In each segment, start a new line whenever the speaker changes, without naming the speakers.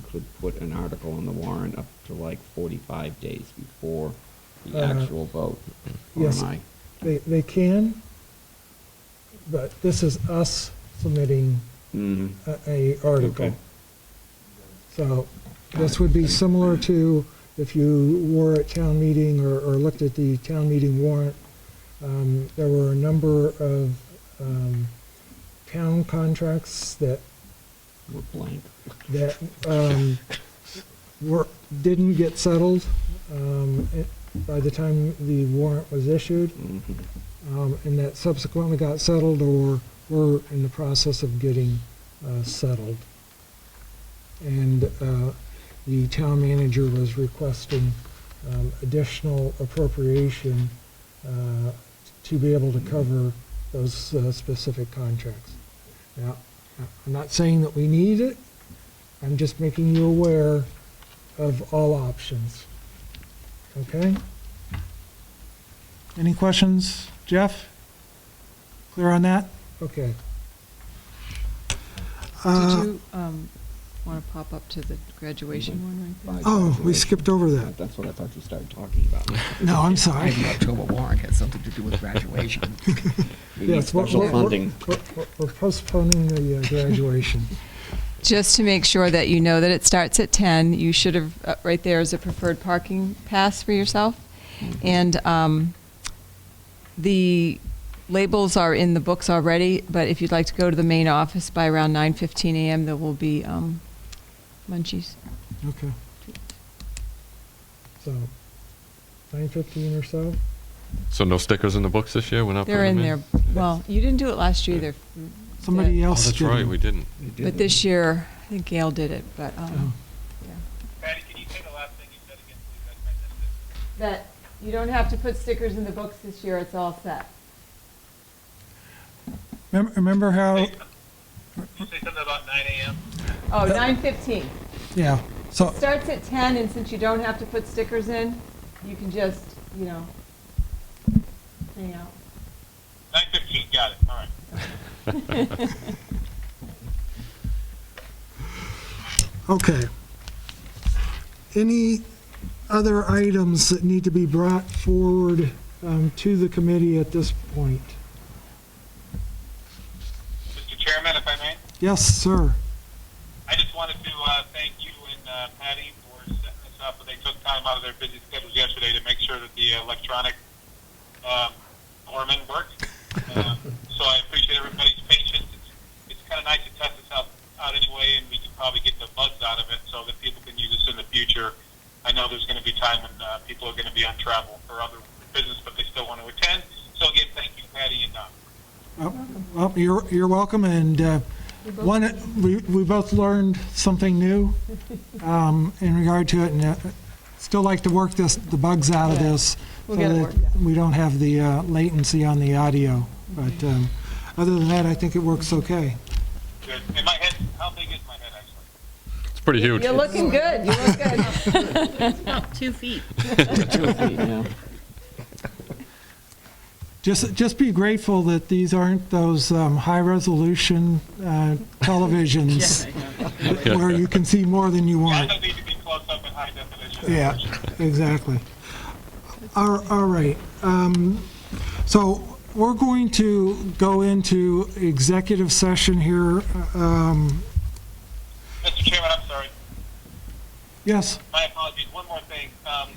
could put an article on the warrant up to like forty-five days before the
Uh-huh.
Uh,
actual vote. Or
yes.
am I-
They, they can, but this is us submitting
Mhm.
Uh,
a- a article.
Okay.
So this would be similar to if you were at town meeting or, or looked at the town meeting warrant. Um, There were a number of um, town contracts that,
We're blank.
that um, were, didn't get settled um, it- by the time the warrant was issued,
Mhm.
um, and that subsequently got settled or were in the process of getting uh, settled. And uh, the town manager was requesting um, additional appropriation uh, to be able to cover those uh, specific contracts. Now, I'm not saying that we need it, I'm just making you aware of all options. Okay?
Any questions, Jeff? Clear on that?
Okay.
Uh,
Did you want to pop up to the graduation one right there?
Oh, we skipped over that.
That's what I thought you started talking about.
No, I'm sorry.
Maybe October warrant has something to do with graduation.
We need
Yes, we're-
special
we're- we're-
funding.
we're- we're- We're postponing the uh, graduation.
Just to make sure that you know that it starts at 10, you should have, uh, right there is a preferred parking pass for yourself. And um, the labels are in the books already, but if you'd like to go to the main office by around 9:15 a.m., there will be um, munchies.
Okay. So, 9:15 or so?
So no stickers in the books this year? We're not
They're
putting
in
them
there. Well, you didn't do it last year either.
Somebody
Yeah.
Oh,
else did.
that's right, we didn't.
Mm-hmm.
But this year, I think Gail did it, but, um, yeah.
Patty, can you say the last thing you said again, please? I I missed it.
that you don't have to put stickers in the books this year, it's all set.
Remem- Remember how,
Did you say something about 9 a.m.?
Oh, 9:15.
yeah, so,
Starts at 10, and since you don't have to put stickers in, you can just, you know, hang out.
9:15, got it, all right.
okay. Any other items that need to be brought forward um, to the committee at this point?
Mr. Chairman, if I may,
Yes, sir.
I just wanted to uh, thank you and uh, Patty for setting this up. They took time out of their busy schedules yesterday to make sure that the electronic um, foreman worked. Um, So I appreciate everybody's patience. It's- It's kind of nice to test this out out anyway, and we can probably get the buzz out of it so that people can use this in the future. I know there's going to be time when uh, people are going to be on travel for other business, but they still want to attend. So again, thank you, Patty and uh, Don.
Oh, Well, you're, you're welcome, and uh, one, we, we both learned something new um, in regard to it, and uh, still like to work this, the bugs out of
Yeah.
this.
We'll
so
get it
that
worked out. Mm-hmm.
We don't have the uh, latency on the audio, but um, other than that, I think it works okay.
Good. In my head, how big is my head actually?
It's pretty huge.
You're looking good, you look good.
Two feet.
Yeah.
Just, just be grateful that these aren't those um, high-resolution uh, televisions where you can see more than you
Yeah, I
want.
don't need to be close up and high definition.
Yeah, exactly. All all right. um, So we're going to go into executive session here. um,
Mr. Chairman, I'm sorry.
Yes,
My apologies. One more thing. Um,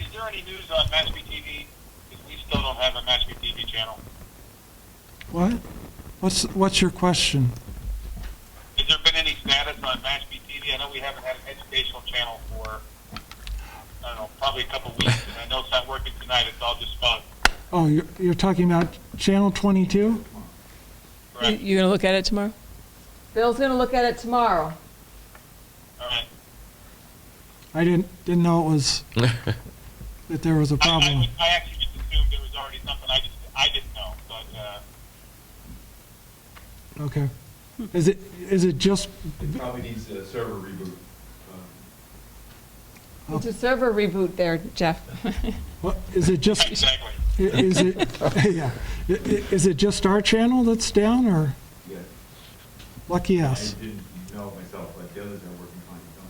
is, is there any news on Mashpee TV? Because we still don't have a Mashpee TV channel.
what? What's, what's your question?
Has there been any status on Mashpee TV? I know we haven't had an educational channel for, I don't know, probably a couple weeks. And I know it's not working tonight. It's all just fun.
Oh, you're, you're talking about Channel 22?
Correct?
You gonna look at it tomorrow?
Bill's gonna look at it tomorrow.
All right.
I didn't, didn't know it was, that there was a
I, I,
problem.
would- I actually just assumed there was already something I just I didn't know. But uh,
Okay. Is it, is it just,
It probably needs a server reboot. Um,
It's a server reboot there, Jeff.
what- is it just,
exactly.
is it, yeah, I- i- is it just our channel that's down, or?
Yeah,
Lucky
I
us.
didn't know it myself, but the others are working.